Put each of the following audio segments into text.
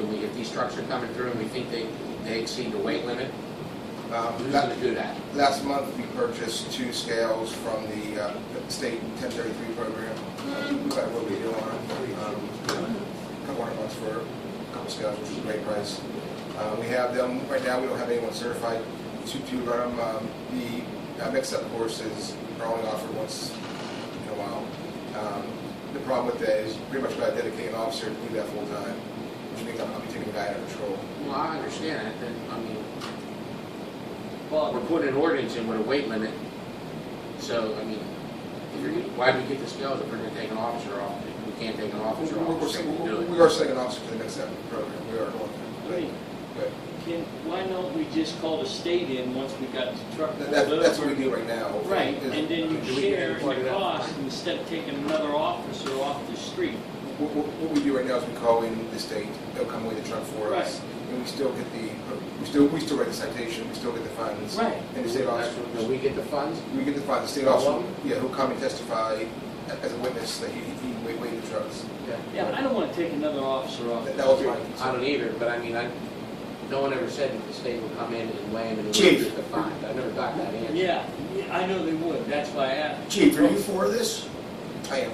empty structure coming through and we think they, they exceed the weight limit, Um, who's la- gonna do that? Last month, we purchased two scales from the uh, state 1033 program. We got what we do on them. Couple hundred bucks for a couple scales, which is a great price. Uh, We have them, right now, we don't have anyone certified to to run them. Um, The uh, mix-up courses are only offered once in a while. Um, The problem with that is pretty much got to dedicate an officer to do that full-time, which means I'll be taking a guy out of patrol. Well, I understand that, and, I mean, well, we're putting an ordinance in with a weight limit, so, I mean, if you're, why do we get the scales if we're gonna take an officer off? We can't take an We're- officer off, we're- we're saying we do we're- it. We are sending an officer to the mix-up program. We are going I there. mean, But can, why don't we just call the state in once we got the truck That, pulled that- that's what we do over? right now. Right, and then Do you we share plug in it the up? cost instead of taking another officer off the street. What, what- what we do right now is we call in the state, they'll come with the truck for us. And we still get the, we still, we still write the citation, we still get the fines. Right. And the state officer, Do we get the funds? we get the fines, the state Oh, officer, well. yeah, he'll come and testify a- as a witness that he, he weighed weighed the trucks. Yeah, I don't want to take another officer off. That that was my I concern. don't either, but I mean, I, no one ever said that the state would come in and weigh in and Chief. get the fines. I never got that answer. Yeah, yeah, I know they would, that's why I asked. Chief, are you for this? I am,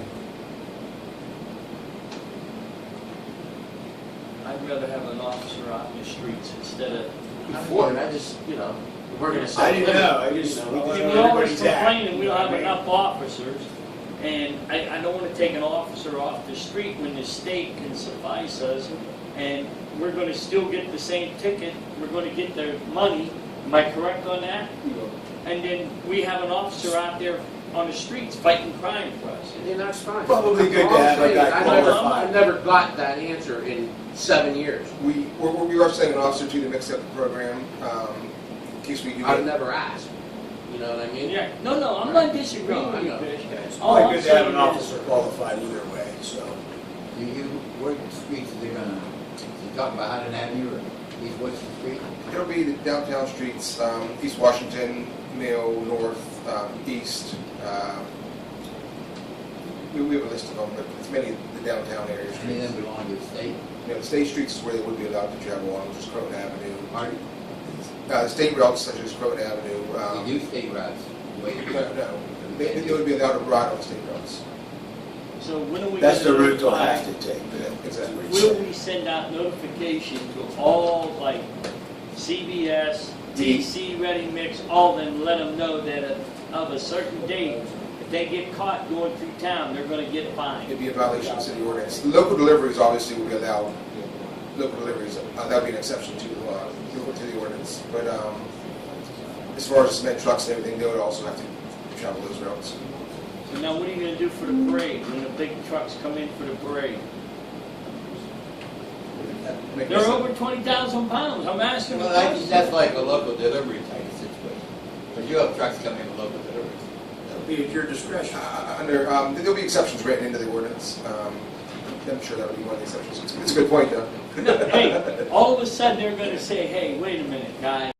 I'd rather have an officer out in the streets instead of. Before, and I just, you know, we're gonna set. I didn't know, I limits, just- you we I didn't wanna- We always Everybody's at. complain that we don't have enough officers, and I, I don't want to take an officer off the street when the state can suffice us, and we're going to still get the same ticket, we're going to get their money, am I correct on that? And then we have an officer out there on the streets fighting crime for us. And that's fine. Probably good to have a guy I never- qualified. I never got that answer in seven years. we, we're, we are sending an officer to the mix-up program, um, in case we do. I've it. never asked, you know what I mean? Yeah, no, no, I'm not disagreeing No, I with you, know. Fish. It's All probably I'm good to have saying an is- officer qualified either way, so. Do you, what streets are they gonna, you talking about Hudson Avenue or East Washington Street? It'll be the downtown streets, um, East Washington, Mayo, North, um, East. um, We, we have a list of them, but it's many of the downtown area Any of streets. them belong to the state? You know, the state streets is where they would be allowed to travel on, which is Croton Avenue. Pardon? Uh, the state routes such as Croton Avenue, They um, do state routes, wait, no, no, they, they would be allowed to ride on state routes. So when are we? That's the gonna route they'll notify- have to take. but- Exactly. Will we send out notification to all, like, CBS, Mm-hmm. DC, Ready Mix, all of them, let them know that uh, of a certain date, if they get caught going through town, they're gonna get fined. It'd be a violation of city ordinance. Local deliveries obviously would be allowed, local deliveries, uh, that'd be an exception to, uh, to the ordinance. But, um, as far as cement trucks and everything, they would also have to travel those routes. So now what are you gonna do for the parade, when the big trucks come in for the parade? Make They're this- over twenty thousand pounds, I'm asking a Well, I think question. that's like a local delivery type of situation, but you have trucks coming with local deliveries. That'll be at your discretion. Uh, Under, um, there'll be exceptions written into the ordinance. Um, I'm sure that would be one of the exceptions. It's a good point, though. No, Hey, all of a sudden, they're gonna say, hey, wait a minute, guy,